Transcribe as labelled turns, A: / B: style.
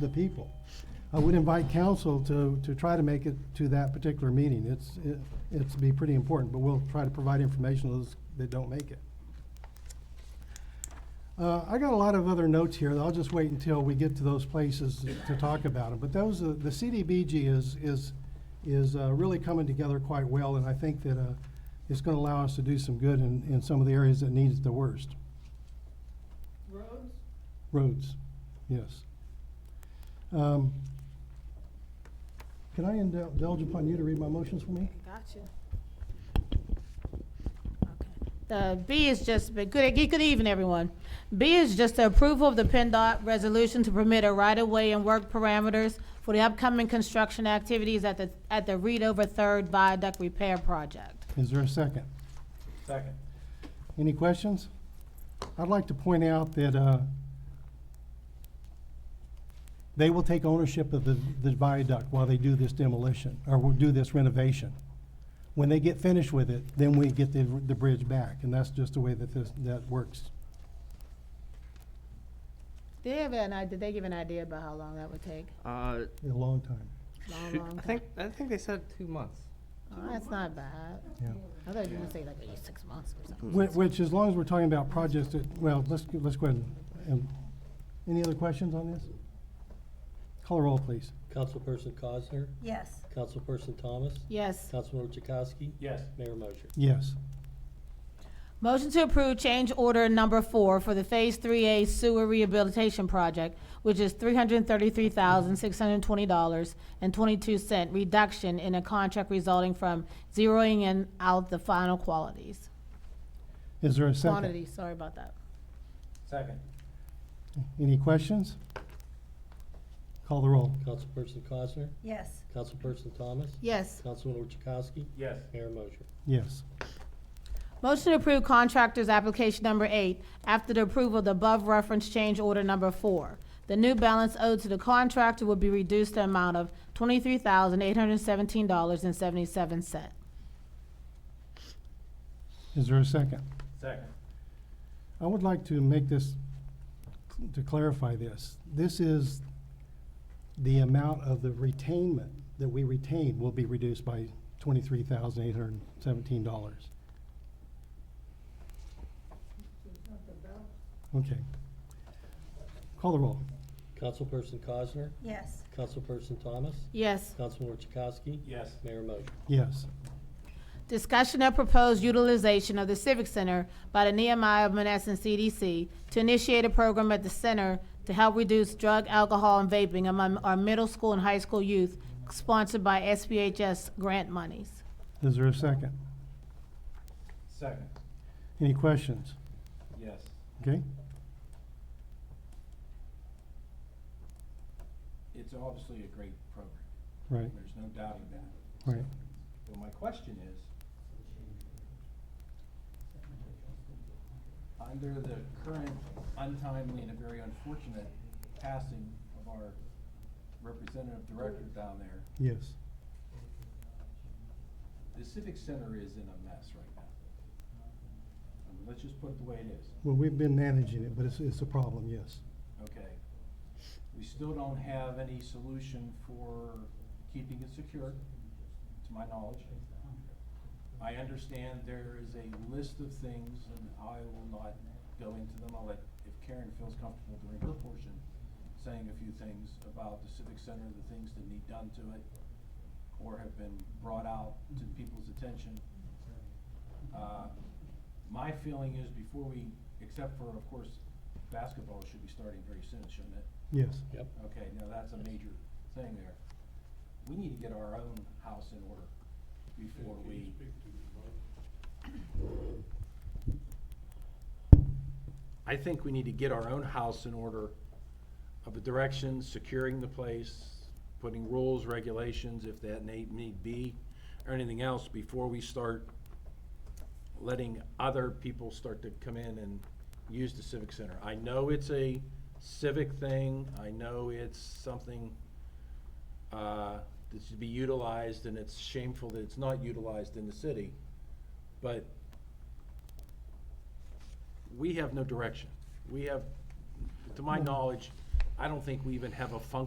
A: the people. I would invite council to, to try to make it to that particular meeting. It's, it- it's be pretty important, but we'll try to provide information to those that don't make it. Uh, I got a lot of other notes here. I'll just wait until we get to those places to talk about them. But those, uh, the CDBG is, is, is uh, really coming together quite well, and I think that uh, it's going to allow us to do some good in, in some of the areas that needs the worst.
B: Roads?
A: Roads, yes. Um, Can I indul- indulge upon you to read my motions for me?
B: Gotcha. Okay. The B is just, but good, good evening, everyone. B is just the approval of the PennDOT resolution to permit a right-of-way and work parameters for the upcoming construction activities at the, at the Reed Over Third Viaduct Repair Project.
A: Is there a second?
C: Second.
A: Any questions? I'd like to point out that uh, they will take ownership of the the viaduct while they do this demolition, or will do this renovation. When they get finished with it, then we get the, the bridge back, and that's just the way that this, that works.
B: Did they have an, i- did they give an idea about how long that would take?
D: Uh,
A: A long time.
B: Long,
D: shoot,
B: long
D: I
B: time?
D: think, I think they said two months.
B: Oh, That's not bad.
A: Yeah.
B: I thought you were gonna say like maybe six months or something.
A: Which, which, as long as we're talking about projects that, well, let's, go- let's go ahead and, and, any other questions on this? Call a roll, please.
E: Councilperson Cosner,
F: Yes.
E: Councilperson Thomas,
B: Yes.
E: Councilor Chakowski,
C: Yes.
E: Mayor Mosher.
A: Yes.
B: Motion to approve change order number four for the Phase Three A Sewer Rehabilitation Project, which is three hundred and thirty-three thousand, six hundred and twenty dollars and twenty-two cent reduction in a contract resulting from zeroing in out the final qualities.
A: Is there a second?
B: Quantity, sorry about that.
C: Second.
A: Any questions? Call the roll.
E: Councilperson Cosner,
F: Yes.
E: Councilperson Thomas,
B: Yes.
E: Councilor Chakowski,
C: Yes.
E: Mayor Mosher.
A: Yes.
B: Motion to approve contractor's application number eight after the approval of the above reference change order number four. The new balance owed to the contractor will be reduced to amount of twenty-three thousand, eight hundred and seventeen dollars and seventy-seven cent.
A: Is there a second?
C: Second.
A: I would like to make this, to clarify this. This is the amount of the retainment that we retain will be reduced by twenty-three thousand eight hundred and seventeen dollars. Okay. Call the roll.
E: Councilperson Cosner,
F: Yes.
E: Councilperson Thomas,
B: Yes.
E: Councilor Chakowski,
C: Yes.
E: Mayor Mosher.
A: Yes.
B: Discussion of proposed utilization of the Civic Center by the Nehemiah Monessen CDC to initiate a program at the center to help reduce drug, alcohol, and vaping among our middle school and high school youth, sponsored by SBHS grant monies.
A: Is there a second?
C: Second.
A: Any questions?
C: Yes.
A: Okay?
C: It's obviously a great program.
A: Right,
C: There's no doubting that.
A: right.
C: But my question is, under the current untimely and a very unfortunate passing of our representative director down there,
A: Yes.
C: the civic center is in a mess right now. I mean, Let's just put it the way it is.
A: Well, we've been managing it, but it's, it's a problem, yes.
C: Okay. We still don't have any solution for keeping it secure, to my knowledge. I understand there is a list of things, and I will not go into them. I'll let, if Karen feels comfortable during her portion, saying a few things about the civic center, the things that need done to it, or have been brought out to people's attention. Uh, My feeling is before we, except for, of course, basketball should be starting very soon, shouldn't it?
A: Yes.
E: Yep.
C: Okay, now that's a major thing there. We need to get our own house in order before we. I think we need to get our own house in order of the direction, securing the place, putting rules, regulations, if that need, need be, or anything else, before we start letting other people start to come in and use the civic center. I know it's a civic thing, I know it's something, uh, that should be utilized, and it's shameful that it's not utilized in the city, but we have no direction. We have, to my knowledge, I don't think we even have a function.